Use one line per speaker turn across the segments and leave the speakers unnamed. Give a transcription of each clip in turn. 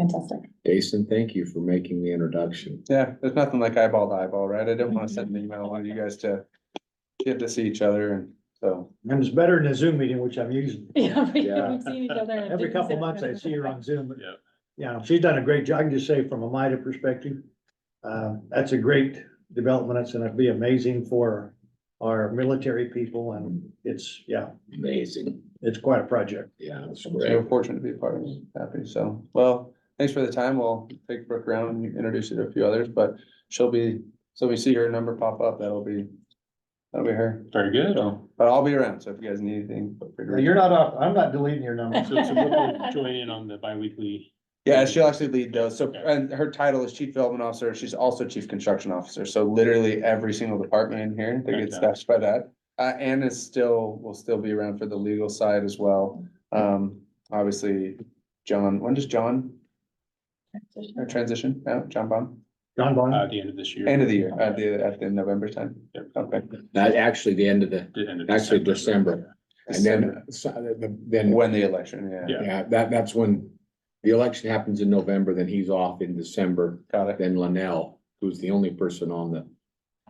Fantastic.
Jason, thank you for making the introduction.
Yeah, there's nothing like eyeball to eyeball, right? I didn't wanna send an email, I wanted you guys to get to see each other and so.
And it's better than a Zoom meeting, which I'm using.
Yeah, we-
Yeah.
we've seen each other. and
Every
things
couple
that-
months I see her on Zoom. but,
Yeah.
Yeah, she's done a great job. I can just say from a MIDA perspective, uh, that's a great development. It's gonna be amazing for our military people and it's, yeah,
Amazing.
it's quite a project.
Yeah, that's
We
great.
were fortunate to be a part of it, happy, so, well, thanks for the time, we'll take Brooke around and introduce you to a few others, but she'll be, so we see her number pop up, that'll be. That'll be her,
Very good.
so, but I'll be around, so if you guys need anything. feel free to
Now,
reach
You're not off, I'm not deleting your number.
So, so Brooke will join in on the bi-weekly.
Yeah, she'll actually lead those. So,
Okay.
and her title is Chief Development Officer. She's also Chief Construction Officer. So literally every single department in here that gets
Okay.
staffed by that. Uh, Ann is still, will still be around for the legal side as well. Um, obviously, John, when does John uh, transition? No, John Baum?
John
uh,
Bond,
at the end of this year.
End of the year, at the, at the November time. Okay.
That actually the end of the,
The end of
Actually, December. and then, so- then,
When the election, yeah,
Yeah.
yeah, that, that's when the election happens in November, then he's off in December.
got it.
Then Linnell, who's the only person on the,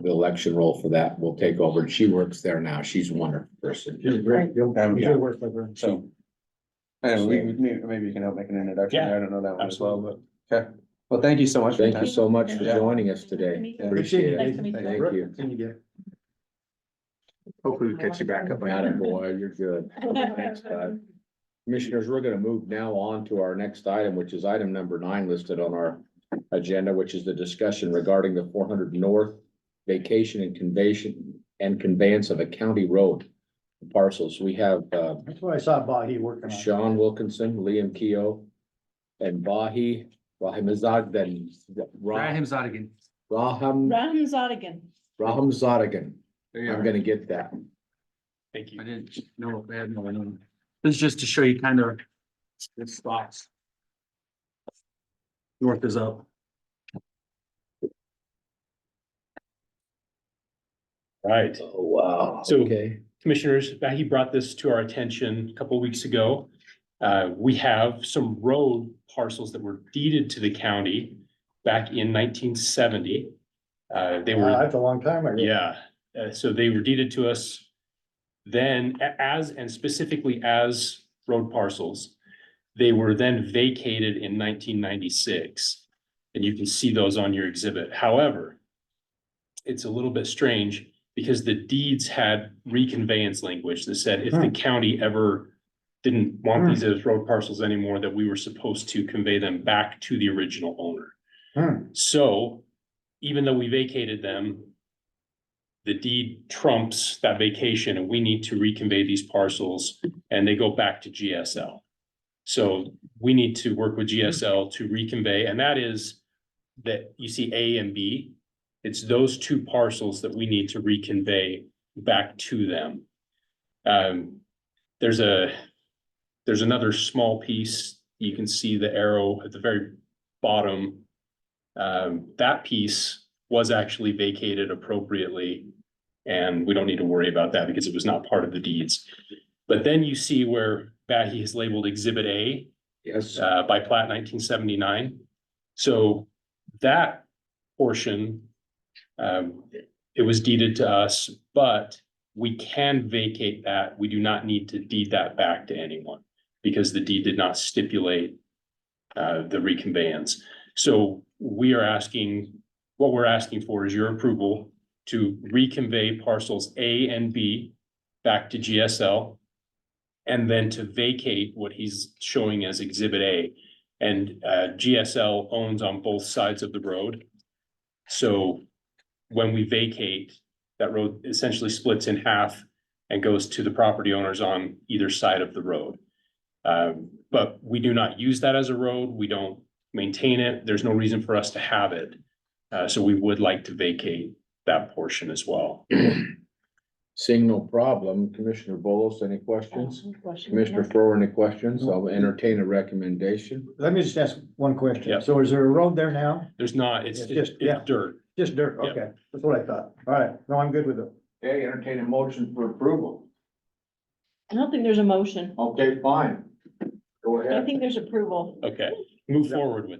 the election roll for that, will take over. And she works there now. She's a wonderful person.
she's great. You'll,
Um, yeah.
you'll work with her.
So. Anyway, we- we, maybe maybe you can help make an introduction.
Yeah,
I don't know that one as well, but, okay. Well, thank you so much. for your
Thank
time.
you so much for
Yeah.
joining us
Nice to meet
today.
you.
Appreciate it.
Nice to meet you.
Thank you.
Can you get?
Hopefully we catch you back up.
Got it, boy. You're good. Thanks, bud. Commissioners, we're gonna move now on to our next item, which is item number nine listed on our agenda, which is the discussion regarding the four hundred north vacation and conveyance and conveyance of a county road parcels. We have uh
That's what I saw Bahi working on.
Sean Wilkinson, Liam Keough, and Bahi Rahimzad Ben Rahim
Zadigan.
Raham
Ram Zodigan.
Raham Zadigan. I'm gonna get that.
Thank you.
didn't know if they had one on. This is just to show you kind of the spots. North is up.
Right.
Oh, wow.
So-
Okay.
Commissioners, he brought this to our attention a couple weeks ago. Uh, we have some road parcels that were deeded to the county back in nineteen seventy. Uh, they were.
That's a long time ago.
Yeah, uh, so they were deeded to us then a- as, and specifically as road parcels. They were then vacated in nineteen ninety-six, and you can see those on your exhibit. However, it's a little bit strange because the deeds had reconveyance language that said if the county ever didn't want these as road parcels anymore, that we were supposed to convey them back to the original owner.
Hmm.
So even though we vacated them, the deed trumps that vacation and we need to reconvey these parcels and they go back to GSL. So we need to work with GSL to reconvey, and that is that you see A and B. It's those two parcels that we need to reconvey back to them. Um, there's a, there's another small piece. You can see the arrow at the very bottom. Um, that piece was actually vacated appropriately. And we don't need to worry about that because it was not part of the deeds. But then you see where Bahi has labeled Exhibit A
Yes.
uh, by plat nineteen seventy-nine. So that portion, um, it was deeded to us, but we can vacate that. We do not need to deed that back to anyone because the deed did not stipulate uh, the reconveyance. So we are asking, what we're asking for is your approval to reconvey parcels A and B back to GSL and then to vacate what he's showing as Exhibit A. And uh, GSL owns on both sides of the road. So when we vacate, that road essentially splits in half and goes to the property owners on either side of the road. Um, But we do not use that as a road. We don't maintain it. There's no reason for us to have it. Uh, So we would like to vacate that portion as well.
Seeing no problem, Commissioner Bolos, any questions? Commissioner
Questions?
Thor, any questions? I'll entertain a recommendation.
Let me just ask one
Yeah.
question. So is there a road there now?
There's not, it's
It's
it's
just- yeah.
it's dirt.
Just dirt,
Yeah.
okay, that's what I thought, all right, no, I'm good with it.
Okay, entertain a motion for approval.
I don't think there's a motion.
Okay, fine. Go
I think there's approval.
Okay, move forward with.